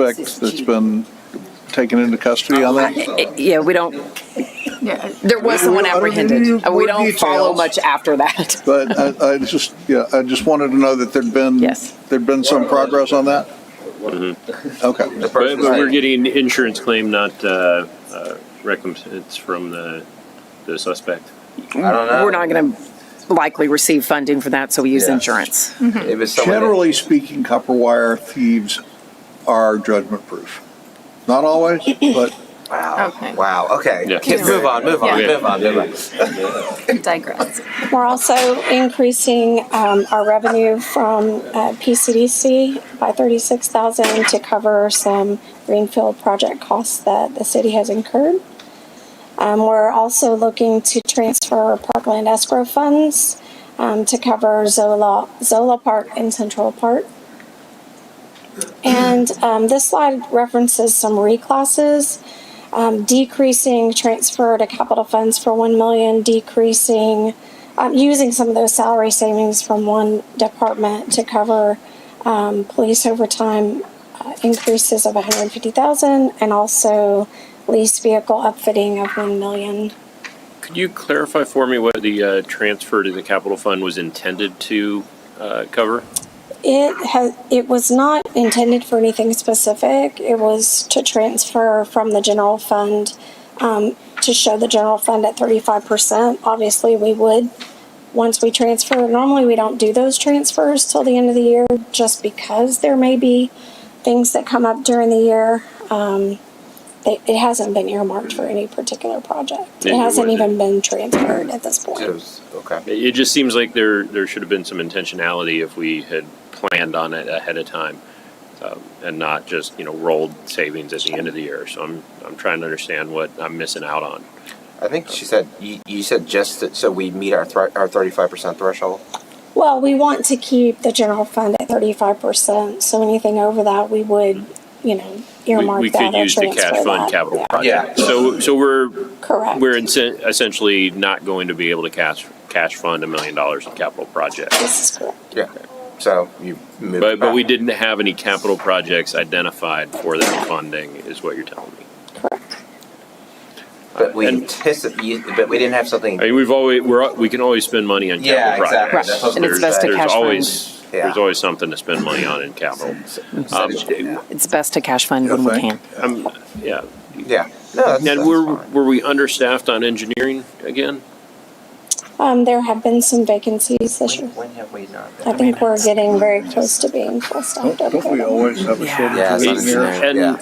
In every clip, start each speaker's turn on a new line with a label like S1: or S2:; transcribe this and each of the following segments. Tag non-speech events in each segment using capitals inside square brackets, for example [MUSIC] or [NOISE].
S1: suspect that's been taken into custody on that?
S2: Yeah, we don't,
S3: Yeah,
S2: there was someone
S1: I don't need
S2: apprehended. Uh,
S1: any
S2: We
S1: more
S2: don't follow
S1: details.
S2: much after that. [LAUGHS]
S1: But I, I just, yeah, I just wanted to know that there'd been,
S2: Yes.
S1: there'd been some progress on that? Okay.
S4: But, but we're getting insurance claim, not uh, uh, recompense It's from the the suspect.
S5: I don't know.
S2: We're not going to likely receive funding for that, so we use
S5: Yeah.
S2: insurance.
S5: If it's someone that-
S1: Generally speaking, copper wire thieves are judgment proof. Not always, but
S5: Wow.
S3: Okay.
S5: Wow. Okay.
S4: Yeah.
S5: Kids, move on. Move on.
S4: Yeah.
S5: Move on. Move on.
S3: digress.
S6: We're also increasing um, our revenue from uh, PCDC by 36,000 to cover some greenfield project costs that the city has incurred. Um, We're also looking to transfer parkland escrow funds um, to cover Zola, Zola Park and Central Park. And um, this slide references some reclasses um, decreasing transfer to capital funds for one million, decreasing, um, using some of those salary savings from one department to cover, um, police overtime uh, increases of hundred and fifty thousand, and also lease vehicle upfitting of one million.
S4: Could you clarify for me what the uh, transfer to the capital fund was intended to uh, cover?
S6: It has, it was not intended for anything specific. It was to transfer from the general fund, um, to show the general fund at thirty-five percent. Obviously, we would, once we transfer, normally we don't do those transfers till the end of the year, just because there may be things that come up during the year. Um, it, it hasn't been earmarked for any particular project.
S4: Yeah,
S6: It
S4: you
S6: hasn't
S4: wouldn't.
S6: even been transferred at this point.
S5: It was- Okay.
S4: It it just seems like there there should have been some intentionality if we had planned on it ahead of time, um, and not just you know rolled savings at the end of the year. So I'm I'm trying to understand what I'm missing out on.
S5: I think she said you, you said just that, so we meet our thr- our thirty five percent threshold.
S6: Well, we want to keep the general fund at thirty-five percent, so anything over that, we would, you know,
S4: We,
S6: earmark
S4: we
S6: that
S4: could
S6: or
S4: use the cash
S6: transfer
S4: fund
S6: that.
S4: capital
S6: Yeah,
S4: project.
S5: Yeah.
S4: So so we're
S6: Correct.
S4: We're insen- essentially not going to be able to cash, cash fund a million dollars in capital projects.
S6: This is correct.
S5: Yeah. So you move.
S4: But,
S5: it
S4: but we
S5: back.
S4: didn't have any capital projects identified for that funding, is what you're telling me.
S6: Correct.
S5: But we
S4: And-
S5: anticipate. But we didn't have something.
S4: I mean, we've always, we're, al- we can always spend money on
S5: Yeah,
S4: capital
S5: exactly.
S4: projects.
S5: That's what
S4: There's-
S2: And it's best to
S4: there's
S2: cash fund.
S4: always- There's
S5: Yeah.
S4: always something to spend money on in capital. Um,
S5: yeah.
S2: It's best to cash fund when we
S1: Okay.
S2: can.
S4: I'm- Um, yeah.
S5: yeah. No. That's,
S4: Ned,
S5: that's
S4: were,
S5: fine.
S4: were we understaffed on engineering again?
S6: Um, there have been some vacancies this year.
S5: When, when have we not?
S6: I think we're getting very close to being full staffed
S1: don't
S6: over
S1: don't we
S6: there.
S1: always have a shortage
S5: Yeah,
S1: of
S5: it's not
S1: engineers?
S4: And,
S5: Yeah.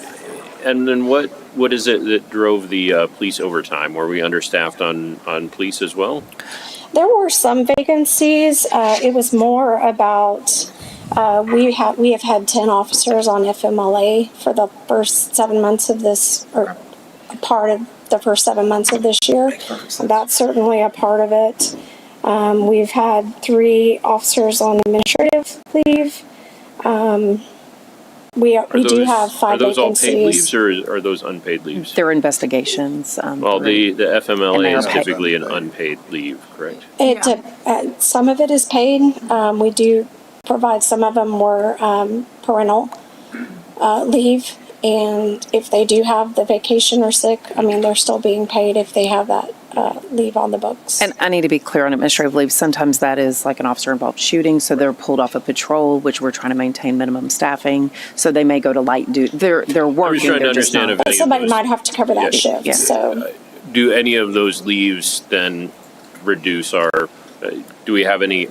S4: and then what, what is it that drove the, uh, police overtime? Were we understaffed on, on police as well?
S6: There were some vacancies. Uh, it was more about, uh, we have, we have had ten officers on FMLA for the first seven months of this, or a part of the first seven months of this year. That's certainly a part of it. Um, we've had three officers on administrative leave. Um, we,
S4: Are
S6: we do
S4: those-
S6: have five
S4: Are those all paid leaves
S6: vacancies.
S4: or is- are those unpaid leaves?
S2: There are investigations. um,
S4: Well, the,
S2: through-
S4: the
S2: And they
S4: FMLA
S2: are
S4: is
S2: paid.
S4: typically an unpaid leave, correct?
S6: It, de- uh, some of it is paid. Um, we do provide, some of them were, um, parental, uh, leave. And if they do have the vacation or sick, I mean, they're still being paid if they have that, uh, leave on the books.
S2: And I need to be clear on administrative leave. Sometimes that is like an officer involved shooting, so they're pulled off a patrol, which we're trying to maintain minimum staffing. So they may go to light duty. They're, they're working.
S4: trying to
S2: they're just
S4: understand
S2: not-
S4: if-
S6: But
S4: any of
S6: somebody
S4: those-
S6: might have to cover that
S4: Yeah,
S6: shift,
S2: yeah.
S6: so.
S4: Do any of those leaves then reduce our, uh, do we have any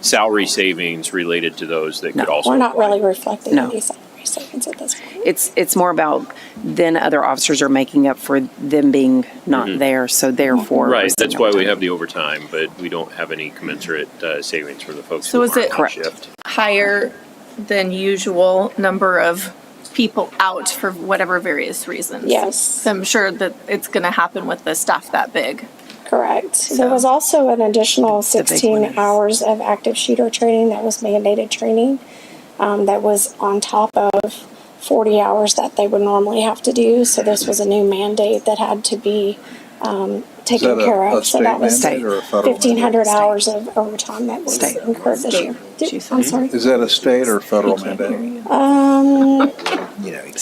S4: salary savings related to those that could
S2: No,
S4: also
S6: We're not
S4: apply?
S6: really reflecting
S2: No.
S6: any salary savings at this point.
S2: It's, it's more about then other officers are making up for them being not there, so therefore. we're
S4: Mm-hmm. Right,
S2: seeing
S4: that's why we
S2: overtime.
S4: have the overtime, but we don't have any commensurate uh, savings for the folks
S3: So
S4: who
S3: is it-
S4: aren't on
S2: Correct.
S4: shift.
S3: Higher than usual number of people out for whatever various reasons.
S6: Yes.
S3: So I'm sure that it's going to happen with the staff that big.
S6: Correct. There
S3: So-
S6: was also an additional
S2: The big one is-
S6: 16 hours of active shooter training that was mandated training um, that was on top of 40 hours that they would normally have to do. So this was a new mandate that had to be um, taken
S1: that a-
S6: care
S1: a
S6: of, so that
S1: state
S6: was
S1: mandate or a federal
S6: fifteen hundred
S2: mandate?
S6: hours of overtime that was
S2: State.
S6: incurred this year.
S3: State, she
S6: I'm
S3: said.
S6: sorry.
S1: Is that a state or federal mandate?
S6: Um,
S7: you know,